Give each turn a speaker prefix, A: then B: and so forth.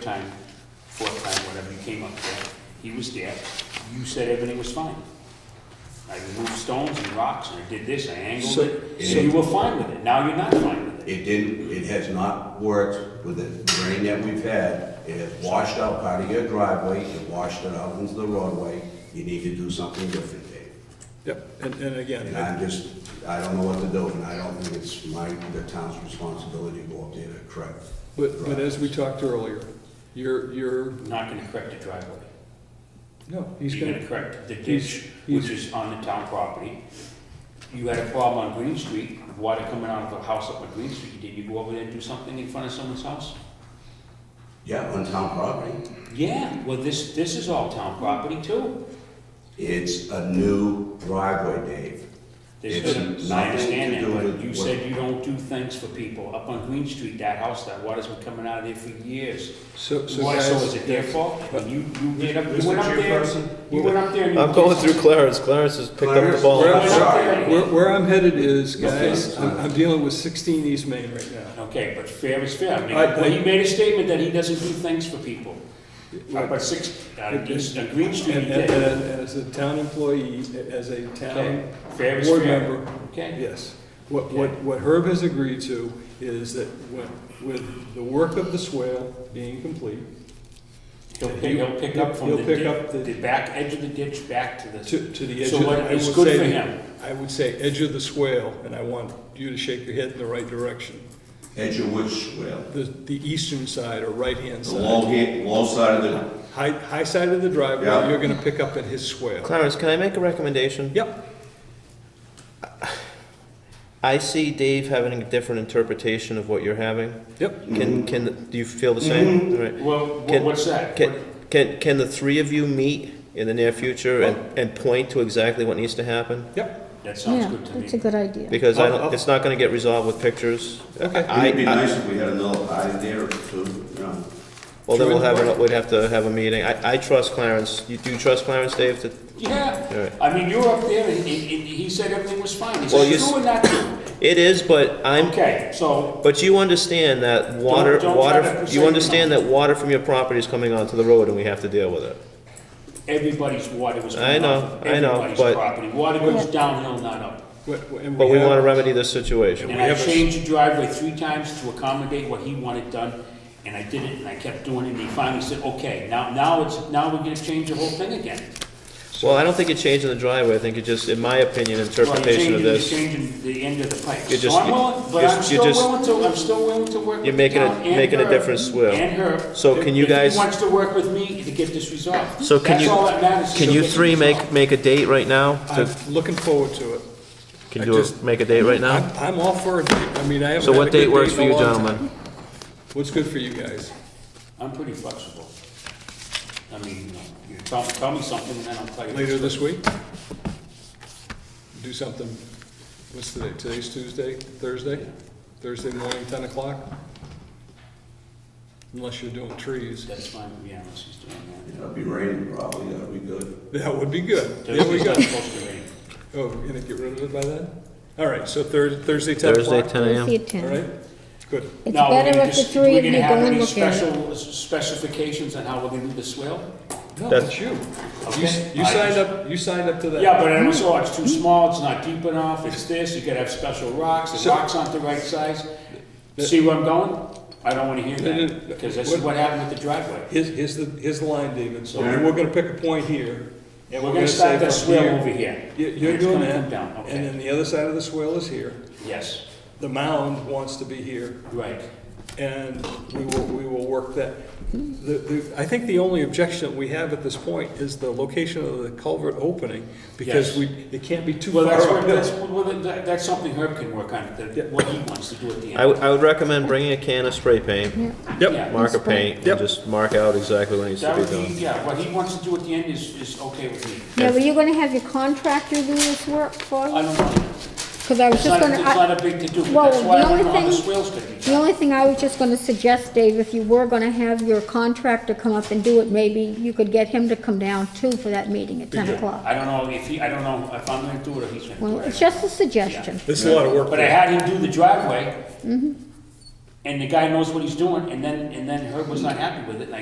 A: time, fourth time, whatever, you came up there, he was there, you said everything was fine. I removed stones and rocks, and I did this, I angled
B: So-
A: it, so you were fine with it, now you're not fine with it.
C: It didn't, it has not worked with the rain that we've had. It has washed out part of your driveway, it washed it out into the roadway. You need to do something different, Dave.
B: Yep, and, and again,
C: And
B: I-
C: I'm just, I don't know what to do, and I don't think it's my, the town's responsibility to go up there to correct.
B: but, but as we talked earlier, you're, you're,
A: I'm not gonna correct the driveway.
B: no, he's
A: You're
B: gonna,
A: gonna correct the
B: he's-
A: ditch,
B: he's-
A: which is on the town property. You had a problem on Green Street, water coming out of the house up on Green Street, did you go over there and do something in front of someone's house?
C: Yeah, on town property.
A: Yeah, well, this, this is all town property too.
C: It's a new driveway, Dave.
A: There's
C: It's
A: been, I
C: nothing
A: understand
C: to
A: that,
C: do
A: but
C: with
A: you
C: what-
A: said you don't do things for people. Up on Green Street, that house, that water's been coming out of there for years.
B: so, so
A: Why, so is
B: guys,
A: it their fault? When you, you did up, you
D: Mr.
A: went up there,
D: Chairperson?
A: you went up there and you.
E: I'm going through Clarence. Clarence has picked up the
C: Clarence,
E: ball.
A: You
C: Clarence.
A: went up there and-
B: where, where I'm headed is, guys,
C: Okay.
B: I'm, I'm dealing with sixteen East Main right now.
A: Okay, but fair is fair. I mean,
B: I-
A: well, he made a statement that he doesn't do things for people. Up at six, on East- on Green Street, he
B: And, and,
A: did.
B: and as a town employee, as a
A: Okay,
B: town
A: fair is
B: board
A: fair.
B: member,
A: Okay,
B: Yes. What, what, what Herb has agreed to is that when, with the work of the swale being complete,
A: he'll pick, he'll pick up from
B: He'll
A: the
B: pick up the-
A: ditch, the back edge of the ditch back to the.
B: to, to the edge
A: So
B: of the.
A: what
B: I
A: is
B: would
A: good
B: say
A: for
B: the-
A: him?
B: I would say edge of the swale, and I want you to shake your head in the right direction.
C: Edge of which, well,
B: The, the eastern side or right-hand
C: the low,
B: side,
C: hand- low side of the,
B: high, high side of the driveway,
C: Yeah.
B: you're gonna pick up at his swale.
E: Clarence, can I make a recommendation?
B: Yep,
E: I see Dave having a different interpretation of what you're having.
B: yep.
C: Mm-hmm.
E: Can can do you feel the same? All right.
A: Well, wha-
E: Can-
A: what's that?
E: Can can can the three of you meet in the near future
C: Oh.
E: and, and point to exactly what needs to happen?
A: That sounds
F: yeah,
A: good to me.
F: That's a good idea.
E: Because I don't,
B: I'll- I'll-
E: it's not going to get resolved with pictures.
B: Okay.
E: I,
C: Oh, it'd be
E: I-
C: nice if we had another eye there too, you know.
E: well, then we'll
B: Sure.
E: have a, we'd have to have a meeting. I, I trust Clarence. You do you trust Clarence, Dave? To, All
A: Yeah,
E: right.
A: I mean, you were up there, and he, he- he said everything was fine, he
E: Well,
A: said,
E: you
A: true
E: s-
A: or not true?
E: it is, but I'm
A: Okay, so,
E: But you understand that water,
A: don't try to
E: water,
A: persuade
E: you
A: me.
E: understand that water from your property is coming onto the road and we have to deal with it.
A: everybody's water was
E: I
A: coming
E: know,
A: off of
E: I know,
A: everybody's
E: but-
A: property, water goes
F: Yeah.
A: downhill, not up.
B: But
E: But we want to remedy this situation.
A: And
B: we
A: I
B: have a s-
A: changed the driveway three times to accommodate what he wanted done, and I did it, and I kept doing it, and he finally said, okay, now, now it's, now we're gonna change the whole thing again.
E: Well, I don't think you're changing the driveway, I think you're just, in my opinion,
A: Well, you're
E: interpretation of
A: changing- you're
E: this.
A: Changing the end of the pipe,
E: You're
A: so
E: just-
A: I'm willing, but
E: you're-
A: I'm
E: you're
A: still
E: just-
A: willing to, I'm still willing to work with
E: You're
A: the
E: making a-
A: town and
E: making a
A: her-
E: difference, Will.
A: And her.
E: So can you
A: If he
E: guys-
A: wants to work with me to get this resolved.
E: So can you,
A: That's all that matters.
E: can
A: to
E: you
A: get it
E: three make,
A: resolved.
E: make a date right now?
B: I'm
E: To-
B: looking forward to it.
E: Can
B: I
E: you
B: just-
E: make a date right
B: I'm,
E: now?
B: I'm all for it, I mean, I haven't.
E: So
B: had
E: what
B: a good
E: date works for
B: in a
E: you
B: long time.
E: gentlemen?
B: What's good for you guys?
A: I'm pretty flexible. I mean, you know, you tell, tell me something and then I'll tell you.
B: Later this week? Do something, what's today, today's Tuesday, Thursday? Thursday morning, ten o'clock? Unless you're doing trees,
A: That's fine, with me, unless he's doing
C: It'll be raining probably, that'll be good.
B: that would be good,
A: that.
B: there we
A: Thursday's
B: go.
A: not supposed to rain.
B: Oh, you're gonna get rid of it by then? All right, so Thursday, Thursday, ten
E: Thursday,
B: o'clock?
E: ten
F: We'll see
E: AM?
F: it
B: All
F: ten.
B: right, good,
F: It's
A: Now, we're
F: better
A: gonna
F: if the
A: just-
F: three of you
A: We're
F: go
A: gonna have
F: and
A: any
F: look at it.
A: special specifications on how we're gonna do the swale?
B: no,
E: That's-
B: that's you.
A: Okay.
B: You, s- you
A: I-
B: signed up, you signed up to that.
A: Yeah, but I
B: Hmm.
A: was, oh, it's too small, it's not deep enough, it's this, you gotta have special rocks, the
B: So-
A: rocks aren't the right size. See where I'm going? I don't wanna hear that, because this is what happened with the driveway.
B: Here's, here's the, here's the line, David, so we're gonna pick a point here.
A: And we're gonna
B: say
A: start that
B: from
A: swale
B: here-
A: over here.
B: You-
A: and
B: You're
A: it's
B: doing
A: gonna come
B: that,
A: down,
B: and then
A: okay,
B: the other side of the swale is here.
A: yes,
B: The mound wants to be here,
A: right.
B: and we will, we will work that. The, the, I think the only objection that we have at this point is the location of the culvert opening, because
A: Yes.
B: we, it can't be too
A: Well,
B: far
A: that's, where-
B: up.
A: that's, well, that- that's something Herb can work on,
B: Yeah.
A: that, what he wants to do at the
E: I
A: end.
E: would, I would recommend bringing a can of spray paint,
F: Yeah.
A: Yeah.
B: Yep,
E: marker paint, and
B: Yep.
E: just mark out exactly what needs to
A: That
E: be
A: would be,
E: done.
A: yeah, what he wants to do at the end is, is okay with me.
F: Now, were you gonna have your contractor do this work for
A: I
F: you?
A: don't know,
F: Because I was
A: it's
F: just
A: not,
F: gonna,
A: it's
F: I-
A: not a big to do,
F: Well,
A: but that's why I
F: the
A: don't
F: only
A: know how the
F: thing-
A: swale's gonna be
F: the
A: done.
F: only thing I was just gonna suggest, Dave, if you were gonna have your contractor come up and do it, maybe you could get him to come down too for that meeting at ten o'clock.
A: I don't know if he, I don't know if I'm gonna do it or he's gonna do it.
F: Well, it's just a suggestion.
B: this is a lot of work.
A: But I had him do the driveway. and the guy knows what he's doing, and then, and then Herb was not happy with it, and I